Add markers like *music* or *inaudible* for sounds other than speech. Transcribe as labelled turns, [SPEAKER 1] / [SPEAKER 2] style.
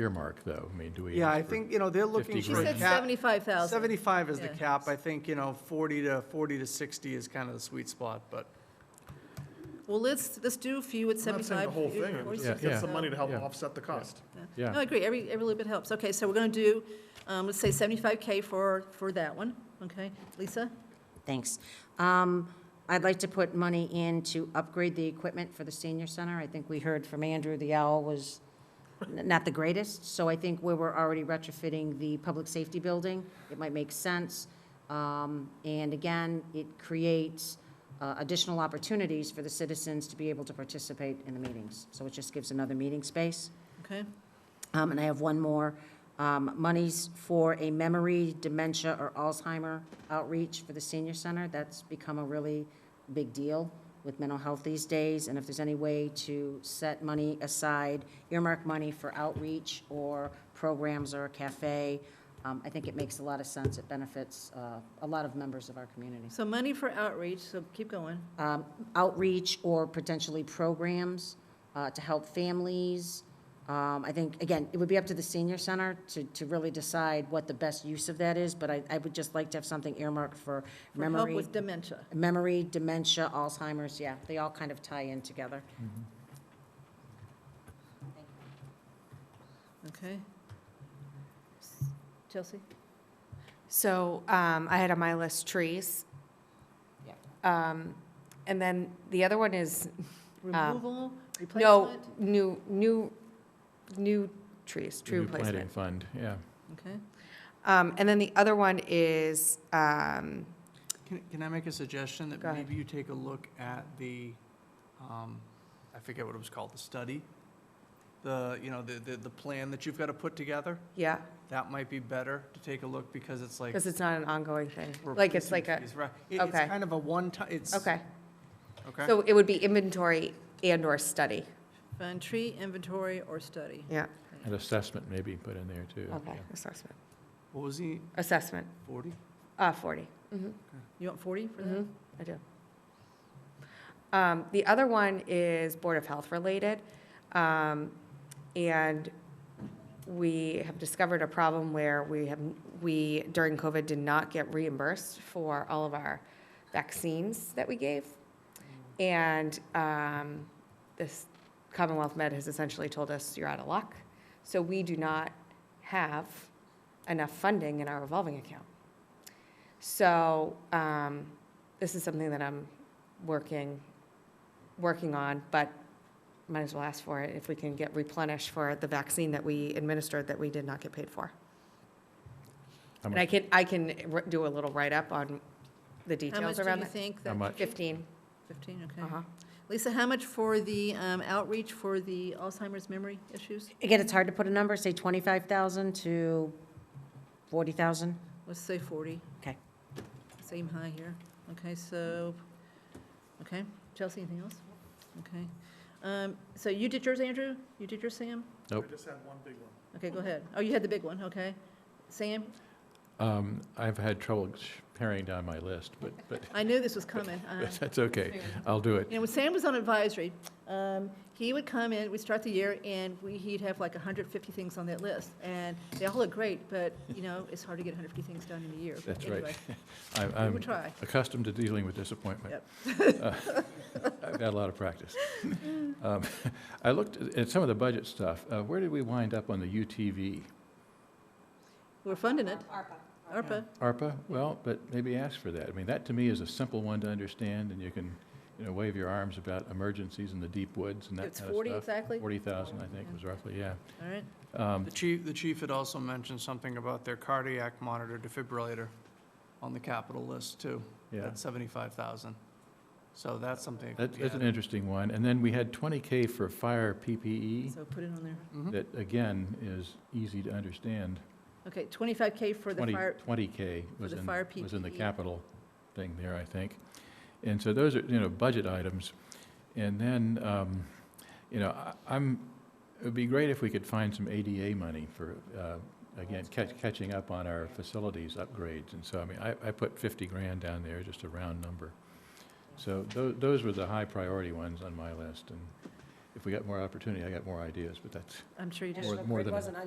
[SPEAKER 1] earmark, though? I mean, do we?
[SPEAKER 2] Yeah,
[SPEAKER 1] ask
[SPEAKER 2] I
[SPEAKER 1] for-
[SPEAKER 2] think, you know, they're looking
[SPEAKER 1] 50
[SPEAKER 2] for
[SPEAKER 1] grand.
[SPEAKER 2] a
[SPEAKER 1] She
[SPEAKER 2] cap.
[SPEAKER 1] said
[SPEAKER 3] 75,000.
[SPEAKER 2] 75 is the
[SPEAKER 3] Yeah.
[SPEAKER 2] cap. I think, you know, 40 to, 40 to 60 is kind of the sweet spot, but
[SPEAKER 3] Well, let's, let's do a few at
[SPEAKER 4] I'm not
[SPEAKER 3] 75.
[SPEAKER 4] saying the whole
[SPEAKER 3] few at
[SPEAKER 4] thing, I'm
[SPEAKER 3] 40,
[SPEAKER 4] just
[SPEAKER 1] Yeah,
[SPEAKER 4] get some
[SPEAKER 3] yeah.
[SPEAKER 4] money to help
[SPEAKER 1] Yeah.
[SPEAKER 4] offset the cost.
[SPEAKER 1] Yeah.
[SPEAKER 3] No, I agree, every, every little bit helps. Okay, so we're going to do, um, let's say 75K for, for that one, okay? Lisa?
[SPEAKER 5] Thanks. Um, I'd like to put money in to upgrade the equipment for the senior center. I think we heard from Andrew, the owl was n- not the greatest, so I think where we're already retrofitting the public safety building, it might make sense. Um, And again, it creates uh, additional opportunities for the citizens to be able to participate in the meetings. So it just gives another meeting space.
[SPEAKER 3] Okay,
[SPEAKER 5] Um, And I have one more. Um, Monies for a memory, dementia, or Alzheimer outreach for the senior center. That's become a really big deal with mental health these days. And if there's any way to set money aside, earmark money for outreach or programs or a cafe, um, I think it makes a lot of sense. It benefits uh, a lot of members of our community.
[SPEAKER 3] so money for outreach, so keep going.
[SPEAKER 5] Um, Outreach or potentially programs uh, to help families. Um, I think, again, it would be up to the senior center to, to really decide what the best use of that is, but I, I would just like to have something earmarked for
[SPEAKER 3] For help
[SPEAKER 5] memory,
[SPEAKER 3] with dementia.
[SPEAKER 5] memory, dementia, Alzheimer's, yeah, they all kind of tie in together.
[SPEAKER 3] Okay. Chelsea?
[SPEAKER 6] So um, I had on my list trees. Um, And then the other one is, um,
[SPEAKER 3] Removal,
[SPEAKER 6] no,
[SPEAKER 3] replacement?
[SPEAKER 6] new, new, new trees, tree
[SPEAKER 1] New planting
[SPEAKER 6] replacement.
[SPEAKER 1] fund, yeah.
[SPEAKER 3] Okay,
[SPEAKER 6] Um, And then the other one is, um,
[SPEAKER 2] can, can I make a suggestion that
[SPEAKER 6] Go ahead.
[SPEAKER 2] maybe you take a look at the, um, I forget what it was called, the study? The, you know, the, the, the plan that you've got to put together?
[SPEAKER 6] yeah,
[SPEAKER 2] That might be better to take a look because it's like.
[SPEAKER 6] because it's not an ongoing thing.
[SPEAKER 2] we're
[SPEAKER 6] Like, it's
[SPEAKER 2] replacing
[SPEAKER 6] like a,
[SPEAKER 2] fees, right. It- It's
[SPEAKER 6] okay.
[SPEAKER 2] kind of a one-time, it's.
[SPEAKER 6] okay.
[SPEAKER 2] Okay.
[SPEAKER 6] So it would be inventory and/or study.
[SPEAKER 3] fund, tree inventory or study.
[SPEAKER 6] Yeah,
[SPEAKER 1] An assessment maybe put in there, too.
[SPEAKER 6] okay,
[SPEAKER 1] yeah.
[SPEAKER 6] assessment,
[SPEAKER 2] What was he,
[SPEAKER 6] assessment,
[SPEAKER 2] 40?
[SPEAKER 6] uh, 40. Mhm.
[SPEAKER 3] You want 40 for that?
[SPEAKER 6] Mhm, I do. Um, The other one is Board of Health related. Um, And we have discovered a problem where we have, we during COVID did not get reimbursed for all of our vaccines that we gave. And um, this Commonwealth Med has essentially told us, you're out of luck. So we do not have enough funding in our revolving account. So um, this is something that I'm working, working on, but might as well ask for it if we can get replenished for the vaccine that we administered that we did not get paid for.
[SPEAKER 1] How
[SPEAKER 6] And I
[SPEAKER 1] much-
[SPEAKER 6] can, I can r- do a little write-up on the
[SPEAKER 3] How much
[SPEAKER 6] details
[SPEAKER 3] do
[SPEAKER 6] around
[SPEAKER 3] you
[SPEAKER 6] that.
[SPEAKER 3] think?
[SPEAKER 1] How
[SPEAKER 3] that-
[SPEAKER 1] much?
[SPEAKER 6] 15,
[SPEAKER 3] 15, okay.
[SPEAKER 6] uh-huh.
[SPEAKER 3] Lisa, how much for the um, outreach for the Alzheimer's memory issues?
[SPEAKER 5] Again, it's hard to put a number, say 25,000 to 40,000.
[SPEAKER 3] Let's say 40.
[SPEAKER 5] Okay.
[SPEAKER 3] Same high here. Okay, so, okay. Chelsea, anything else? Okay. Um, So you did yours, Andrew? You did yours, Sam?
[SPEAKER 1] Nope.
[SPEAKER 4] I just had one big one.
[SPEAKER 3] Okay, go ahead. Oh, you had the big one, okay. Sam,
[SPEAKER 1] Um, I've had trouble sh- paring down my list, but, but
[SPEAKER 3] I knew this
[SPEAKER 1] *laughs*
[SPEAKER 3] was coming. Uh,
[SPEAKER 1] but that's okay. I'll do it.
[SPEAKER 3] You know, when Sam was on advisory, um, he would come in, we'd start the year, and we, he'd have like 150 things on that list. And they all look great, but, you know, it's hard to get 150 things done in a year. But
[SPEAKER 1] That's right. Um,
[SPEAKER 3] anyway,
[SPEAKER 1] I'm-
[SPEAKER 3] We will
[SPEAKER 1] I'm
[SPEAKER 3] try.
[SPEAKER 1] accustomed to dealing with disappointment. *laughs* Uh, I've had a lot of practice. Um, *laughs* I looked at- at some of the budget stuff. Uh, Where did we wind up on the UTV?
[SPEAKER 3] We're funding it, ARPA.
[SPEAKER 1] ARPA? Well, but maybe ask for that. I mean, that to me is a simple one to understand, and you can, you know, wave your arms about emergencies in the deep woods and that kind of
[SPEAKER 3] It's
[SPEAKER 1] stuff.
[SPEAKER 3] 40 exactly?
[SPEAKER 1] Forty thousand, I think,
[SPEAKER 3] Yeah.
[SPEAKER 1] was roughly, yeah.
[SPEAKER 3] All right.
[SPEAKER 1] Um,
[SPEAKER 2] The chief, the chief had also mentioned something about their cardiac monitor defibrillator on the capital list too.
[SPEAKER 1] Yeah,
[SPEAKER 2] That's seventy-five thousand. So that's something. that could
[SPEAKER 1] that's,
[SPEAKER 2] be
[SPEAKER 1] that's an
[SPEAKER 2] added.
[SPEAKER 1] interesting one. And then we had twenty K for fire PPE,
[SPEAKER 3] So put it on there.
[SPEAKER 2] Mhm.
[SPEAKER 1] that again is easy to understand.
[SPEAKER 3] Okay, 25K for the
[SPEAKER 1] Twenty
[SPEAKER 3] fire,
[SPEAKER 1] K was
[SPEAKER 3] the
[SPEAKER 1] in,
[SPEAKER 3] fire E.
[SPEAKER 1] was in the
[SPEAKER 3] PPE.
[SPEAKER 1] capital thing there, I think. And so those are, you know, budget items. And then, um, you know, I- I'm, it'd be great if we could find some ADA money for, uh, again, catch, catching up on our facilities upgrades. And so, I mean, I, I put fifty grand down there, just a round number. So tho- those were the high priority ones on my list. And if we got more opportunity, I got more ideas, but that's
[SPEAKER 3] I'm sure you did.
[SPEAKER 1] More- more than a-